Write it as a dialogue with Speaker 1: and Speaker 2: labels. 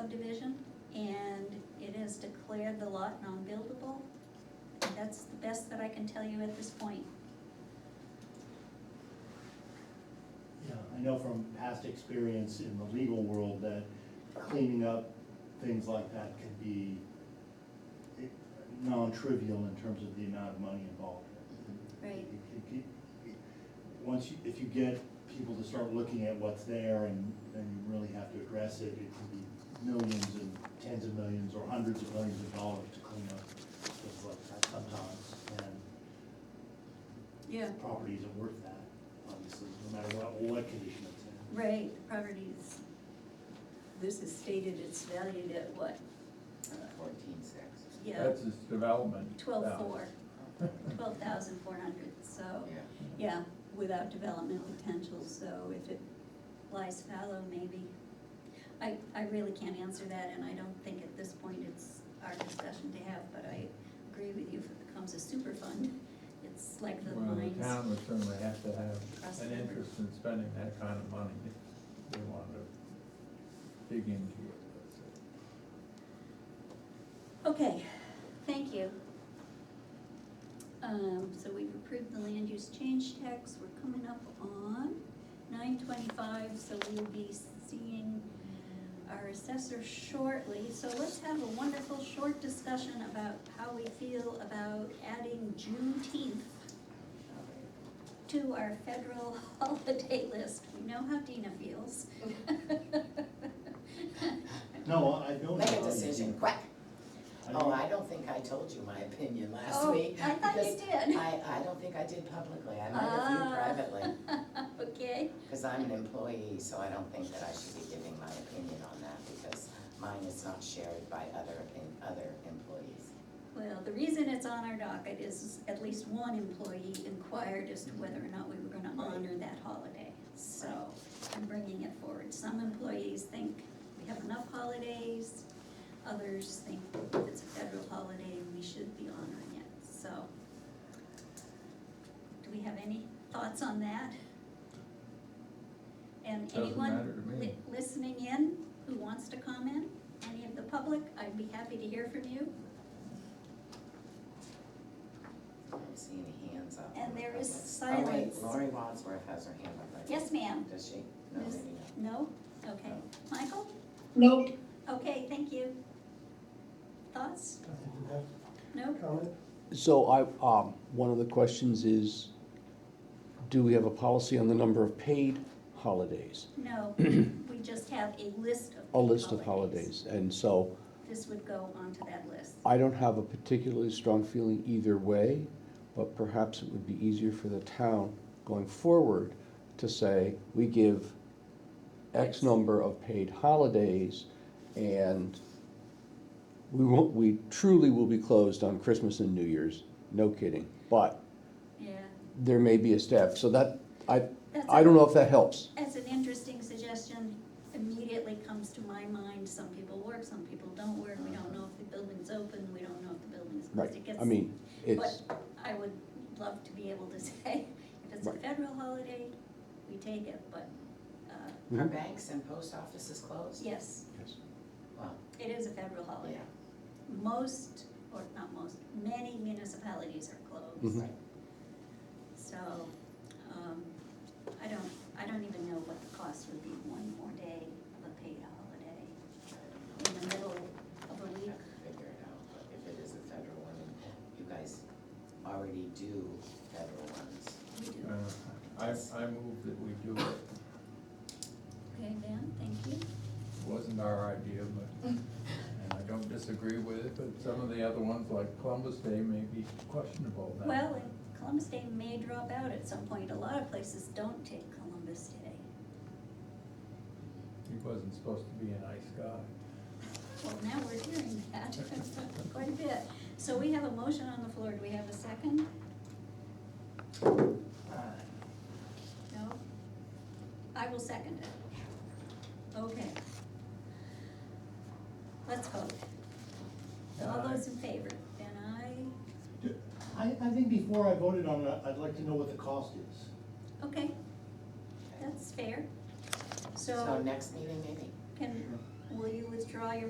Speaker 1: subdivision, and it has declared the lot non-buildable. That's the best that I can tell you at this point.
Speaker 2: Yeah, I know from past experience in the legal world that cleaning up things like that can be eh, non-trivial in terms of the amount of money involved.
Speaker 1: Right.
Speaker 2: It- it- it- Once you, if you get people to start looking at what's there and then you really have to address it, it can be millions and tens of millions or hundreds of millions of dollars to clean up things like that sometimes. And
Speaker 1: Yeah.
Speaker 2: property isn't worth that, obviously, no matter what, what condition it's in.
Speaker 1: Right, the property is, this is stated it's valued at what,
Speaker 3: Fourteen six.
Speaker 1: yeah,
Speaker 4: That's his development.
Speaker 1: twelve
Speaker 4: value.
Speaker 1: four, twelve thousand four hundred, so,
Speaker 3: Yeah,
Speaker 1: yeah, without development potential, so if it lies fallow, maybe. I, I really can't answer that, and I don't think at this point it's our discussion to have, but I agree with you, if it becomes a super fund, it's like the
Speaker 4: Well, the
Speaker 1: mines.
Speaker 4: town would certainly have to
Speaker 1: Across
Speaker 4: have
Speaker 1: the
Speaker 4: an
Speaker 1: river.
Speaker 4: interest in spending that kind of money if they wanted to dig into it.
Speaker 1: Okay, thank you. Um, so we've approved the land use change tax, we're coming up on nine twenty-five, so we'll be seeing our assessor shortly. So let's have a wonderful short discussion about how we feel about adding Juneteenth to our federal holiday list. We know how Dina feels.
Speaker 2: No, I don't. know
Speaker 3: make a
Speaker 2: how you
Speaker 3: decision,
Speaker 2: do it.
Speaker 3: quick.
Speaker 2: I
Speaker 3: Oh,
Speaker 2: don't-
Speaker 3: I don't think I told you my opinion last
Speaker 1: Oh,
Speaker 3: week.
Speaker 1: I thought you
Speaker 3: because
Speaker 1: did.
Speaker 3: I, I don't think I did publicly, I might have
Speaker 1: Ah.
Speaker 3: you privately,
Speaker 1: Okay,
Speaker 3: because I'm an employee, so I don't think that I should be giving my opinion on that, because mine is not shared by other, opin- other employees.
Speaker 1: well, the reason it's on our docket is at least one employee inquired as to whether or not we were gonna honor that holiday. So I'm bringing it forward. Some employees think we have enough holidays, others think if it's a federal holiday, we should be honoring it, so. Do we have any thoughts on that? And
Speaker 4: Doesn't matter to
Speaker 1: anyone
Speaker 4: me.
Speaker 1: li- listening in who wants to comment, any of the public, I'd be happy to hear from you.
Speaker 3: I don't see any hands up.
Speaker 1: And
Speaker 3: in the
Speaker 1: there is
Speaker 3: public.
Speaker 1: silence.
Speaker 3: Oh, wait, Lori Wadsworth has her hand up, I
Speaker 1: Yes, ma'am?
Speaker 3: think. Does she? No,
Speaker 1: There's-
Speaker 3: maybe not.
Speaker 1: No? Okay. Michael?
Speaker 5: Nope.
Speaker 1: Okay, thank you. Thoughts? No?
Speaker 6: So I, um, one of the questions is, do we have a policy on the number of paid holidays?
Speaker 1: No, we just have a list of.
Speaker 6: A list of holidays, and so
Speaker 1: This would go onto that list.
Speaker 6: I don't have a particularly strong feeling either way, but perhaps it would be easier for the town going forward to say, we give
Speaker 1: Yes.
Speaker 6: X number of paid holidays, and we won't, we truly will be closed on Christmas and New Year's, no kidding, but
Speaker 1: Yeah,
Speaker 6: there may be a staff, so that, I,
Speaker 1: That's
Speaker 6: I don't know if that helps.
Speaker 1: that's an interesting suggestion. Immediately comes to my mind, some people work, some people don't work. We don't know if the building's open, we don't know if the building's closed.
Speaker 6: Right,
Speaker 1: It gets-
Speaker 6: I mean, it's,
Speaker 1: But I would love to be able to say, if it's a
Speaker 6: Right.
Speaker 1: federal holiday, we take it, but, uh,
Speaker 3: Are
Speaker 6: Mhm.
Speaker 3: banks and post offices closed?
Speaker 1: yes,
Speaker 6: Yes.
Speaker 3: Well,
Speaker 1: it is a federal holiday.
Speaker 3: yeah.
Speaker 1: most, or not most, many municipalities are closed.
Speaker 6: Mhm.
Speaker 1: So, um, I don't, I don't even know what the cost would be, one more day of a paid holiday in the middle of a week.
Speaker 3: have to figure it out, but if it is a federal one, and you guys already do federal ones.
Speaker 1: We do,
Speaker 4: Uh, I, I move that we do it.
Speaker 1: okay, Van, thank you.
Speaker 4: Wasn't our idea, but, and I don't disagree with it, but some of the other ones like Columbus Day may be questionable now.
Speaker 1: Well, and Columbus Day may drop out at some point, a lot of places don't take Columbus Day.
Speaker 4: He wasn't supposed to be a nice guy.
Speaker 1: Well, now we're hearing that quite a bit. So we have a motion on the floor, do we have a second? No? I will second it. Okay. Let's vote. All
Speaker 4: Aye.
Speaker 1: those in favor, then I,
Speaker 2: I, I think before I voted on it, I'd like to know what the cost is.
Speaker 1: okay, that's fair.
Speaker 3: So
Speaker 1: So
Speaker 3: next meeting, maybe?
Speaker 1: can, Will you withdraw your